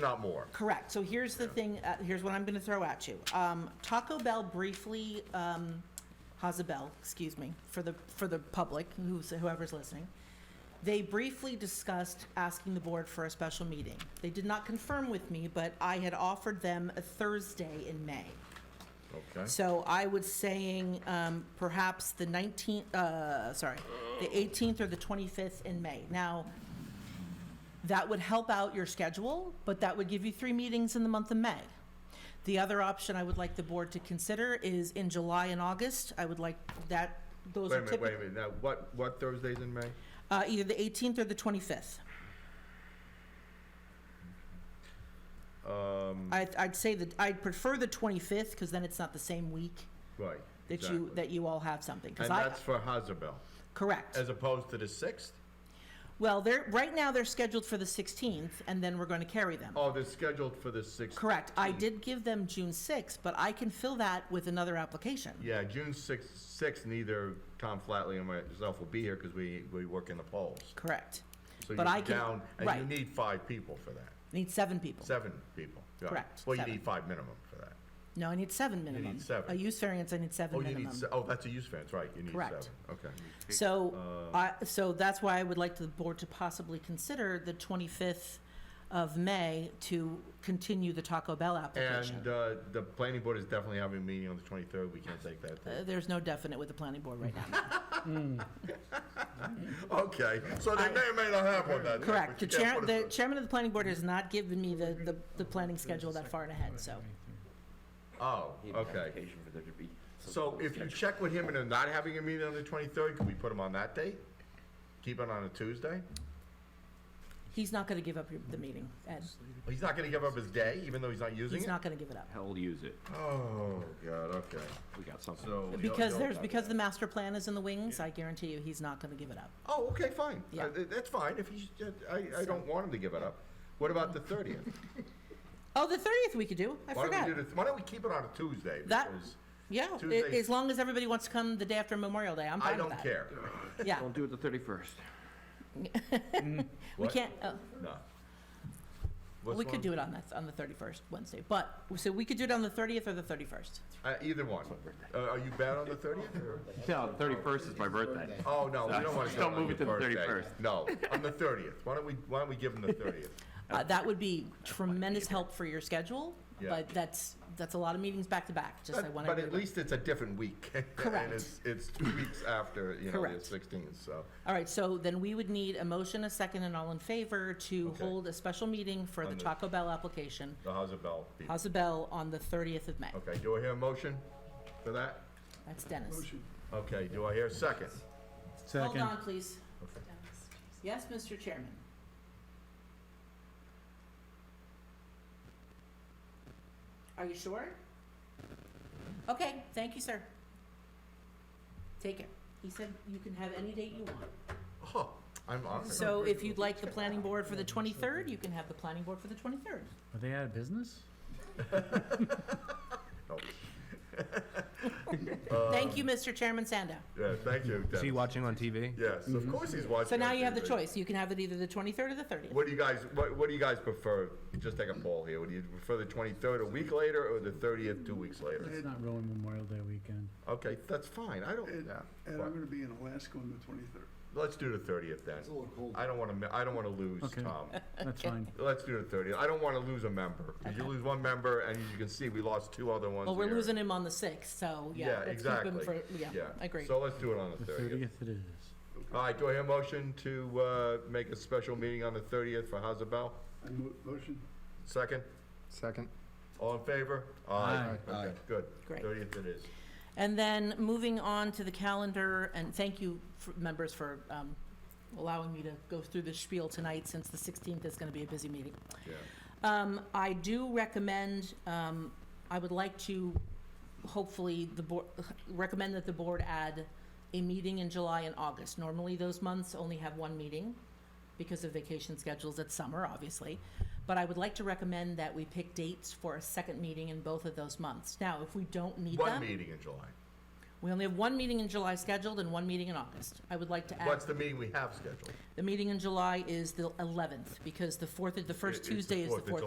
not more. Correct. So here's the thing, uh, here's what I'm going to throw at you. Um, Taco Bell briefly, um, Hazabell, excuse me, for the, for the public, who's, whoever's listening, they briefly discussed asking the board for a special meeting. They did not confirm with me, but I had offered them a Thursday in May. Okay. So I was saying um, perhaps the 19th, uh, sorry, the 18th or the 25th in May. Now, that would help out your schedule, but that would give you three meetings in the month of May. The other option I would like the board to consider is in July and August. I would like that, those Wait a are minute, wait a typically, minute. Now, what, what Thursdays in May? uh, either the 18th or the 25th. Um. I'd, I'd say that, I'd prefer the 25th because then it's not the same week Right. that you, exactly. that you all have something. 'Cause And I- that's for Hazabell, Correct. as opposed to the sixth? Well, they're, right now, they're scheduled for the 16th, and then we're going to carry them. Oh, they're scheduled for the sixth. Correct. I did give them June 6th, but I can fill that with another application. Yeah, June sixth, sixth, neither Tom Flatley and myself will be here because we, we work in the polls. Correct. So But I you're can- down, and you right. need five people for that, Need seven people. seven people. yeah. Correct, Well, you seven. need five minimum for that. No, I need seven minimum. seven. A use variance, I need seven Oh, you need, minimum. se- oh, that's a use variance, right, you need seven, Correct. okay. So, I, Uh. so that's why I would like the board to possibly consider the 25th of May to continue the Taco Bell application. And, uh, the planning board is definitely having a meeting on the twenty-third, we can't take that. Uh, There's no definite with the planning board right now. Okay, so they may or may not have one that day. Correct. but The you chair, can't put the us- chairman of the planning board has not given me the, the, the planning schedule that far ahead, so. Oh, Need an okay. application for there to be some So sort of if you schedule. check with him and they're not having a meeting on the twenty-third, can we put them on that date? Keep it on a Tuesday? He's not gonna give up your- the meeting, Ed. He's not gonna give up his day, even though he's not using He's it? not gonna give it up. Hell, use it. Oh, God, okay, We got something. so. you'll- Because you'll- there's, because the master plan is in the wings, I guarantee you, he's not gonna give it up. Oh, okay, fine. Uh, Yeah. th- That's fine, if he's, uh, I, I don't want him to give it up. What about the thirtieth? Oh, the thirtieth we could do, I Why don't forgot. we do the, why don't we keep it on a Tuesday? That- Because Yeah, i- Tuesday- as long as everybody wants to come the day after Memorial Day, I'm I fine with don't that. care. Yeah, Don't do it the thirty-first. we What? can't, oh, No. we could do it on that, on the thirty-first, Wednesday, but, so we could do it on the thirtieth or the thirty-first. Uh, either one. Uh, are you bad on the thirtieth? No, thirty-first is my birthday. Oh, no, we don't want to do it Don't on move your it to the birthday. 31st. No, on the thirtieth. Why don't we, why don't we give them the thirtieth? Uh, that would be tremendous help for your schedule, Yeah. but that's, that's a lot of meetings back to back, just I But wanna. but give at it- least it's a different week. Correct. And it's, it's two weeks after, you know, the Correct. sixteenth, so. All right, so then we would need a motion, a second, and all in favor to Okay. hold a special meeting for the On the- Taco Bell application, So how's it, Bell? House of Bell, on the 30th of May. Okay, do I hear a motion for that? That's Dennis. Okay, do I hear a second? Hold Second. on, please. Yes, Mr. Chairman? Are you sure? Okay, thank you, sir. Take it. He said you can have any date you want. Oh, I'm honored. So if you'd like the planning board for the 23rd, you can have the planning board for the 23rd. Are they out of business? Oh, Uh, Thank you, Mr. Chairman Sando. Yeah, thank you, Is he Dennis. watching on TV? Yes, of course he's watching. So now on you have the TV. choice. You can have it either the 23rd or the 30th. What do you guys, what, what do you guys prefer? Just take a poll here. Would you prefer the twenty-third a week later or the thirtieth two weeks later? Let's not ruin Memorial Day weekend. Okay, that's fine. I don't, And, yeah. and I'm What? gonna be in Alaska on the twenty-third. Let's do the thirtieth then. I don't wanna, mi- I don't wanna lose Okay. Tom. That's fine. Let's do the thirtieth. I don't wanna lose a member. 'Cause you lose one member and as you can see, we lost two other ones Well, we're here. losing him on the 6th, so yeah. let's keep him exactly. for- Yeah, agreed. So let's do it on the The thirtieth. thirtieth it is. All right, do I hear a motion to, uh, make a special meeting on the thirtieth for House of Bell? I mo- motion, Second? Second. All in favor? Aye. Okay, good. Great. Thirtieth it is. And then moving on to the calendar, and thank you, for- members, for um, allowing me to go through this spiel tonight, since the 16th is going to be a busy meeting. Yeah. Um, I do recommend, um, I would like to, hopefully, the board, recommend that the board add a meeting in July and August. Normally, those months only have one meeting because of vacation schedules. It's summer, obviously. But I would like to recommend that we pick dates for a second meeting in both of those months. Now, if we don't need One them, meeting in July. we only have one meeting in July scheduled and one meeting in August. I would like to add, What's the meeting we have scheduled? the meeting in July is the 11th because the fourth, the It- first it's the Tuesday is the 4th. It's fourth